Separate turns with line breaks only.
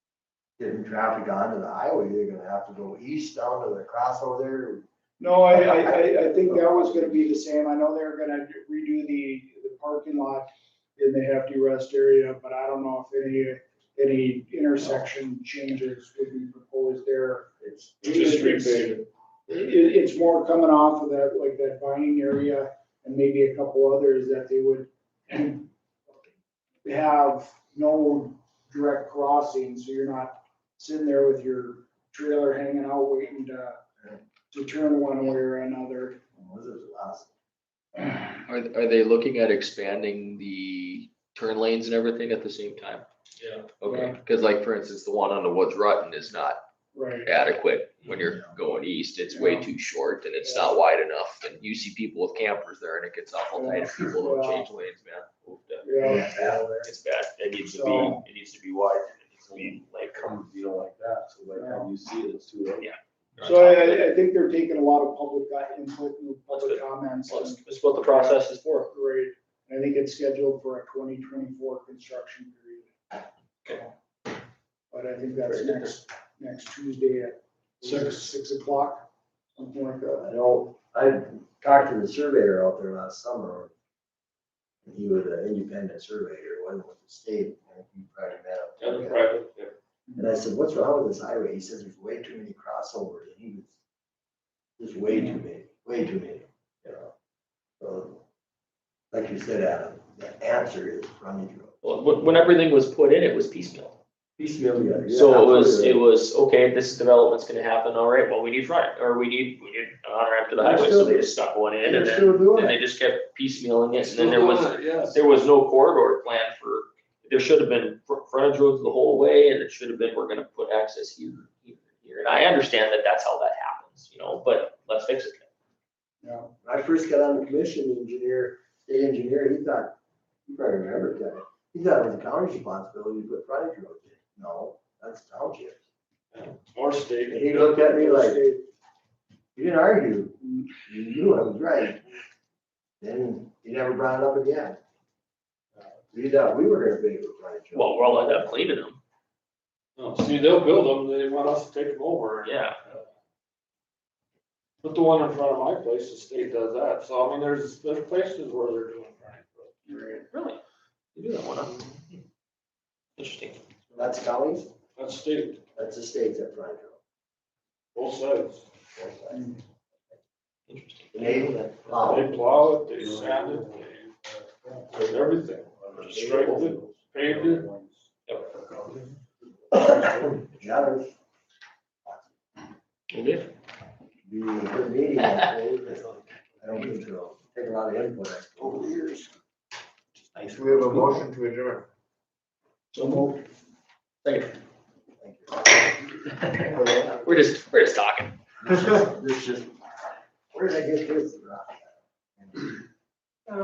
getting traffic onto the highway, they're gonna have to go east down to the crossover there.
No, I, I, I, I think that was gonna be the same. I know they're gonna redo the, the parking lot in the hefty rest area, but I don't know if any, any intersection changes would be proposed there.
It's,
Just street paving.
It, it's more coming off of that, like that Vining area and maybe a couple others that they would have no direct crossing, so you're not sitting there with your trailer hanging out waiting to, to turn one way or another.
what is it, last,
Are, are they looking at expanding the turn lanes and everything at the same time?
Yeah.
Okay, because like, for instance, the one on the Woods Rutten is not
Right.
adequate when you're going east. It's way too short and it's not wide enough. And you see people with campers there and it gets awful tight if people don't change lanes, man.
Yeah,
yeah, there.
It's bad. It needs to
So-
be, it needs to be wide. It needs to be like.
comes, you know, like that, so by the time you see it, it's too late.
so uh, I- I, I think they're taking a lot of public uh, input and public comments. and-
That's what the process is for.
Great. I think it's scheduled for a twenty twenty-four construction period. But I think that's next, next Tuesday at six, six o'clock, something like that.
I know, I talked to the surveyor out there last summer. and He was an independent surveyor, wasn't with the state, and he probably met up.
private.
And I said, what's wrong with this highway? He says, there's way too many crossovers, and he was, there's way too many, way too many, you know? So, like you said, Adam, the answer is frontage road.
Well, when, when everything was put in, it was piecemeal. So it was, it was, okay, this development's gonna happen, all right, well, we need front, or we need, we need an on ramp to the
They're
highway,
still-
so they just stuck one in,
They're
and then,
still doing
and they
it.
just kept piecemealing it, and then there was,
Yes.
there was no corridor plan for, there should have been fr- frontage roads the whole way, and it should have been, we're gonna put access here, here, here, and I understand that that's how that happens, you know, but let's fix it.
Yeah.
When I first got on the commission, the engineer, state engineer, he thought, you probably remember that, he thought it was the county's responsibility to put frontage roads in. No, that's township.
More state.
And he looked at me like, you didn't argue, you knew I was right. Then you never brought it up again. You thought we were gonna be able to frontage. roads.
Well, we'll end up cleaning them,
See, they'll build them, they want us to take them over,
yeah,
but the one in front of my place, the state does that, so I mean, there's, there's places where they're doing that.
Right.
really. You do that one, huh? Hmm. Interesting.
That's counties,
That's state,
that's the states that frontage
both sides,
roads.
Mm.
Interesting.
And they
they
plow.
plow it, they sand it, they, did everything, striped it, paved it.
Jenners, you were meeting that day, but I don't think so, take a lot of input. Over the years.
Do we have a motion to adjourn?
So moved.
We're just, we're just talking.
This is, this is, where did I get this? from?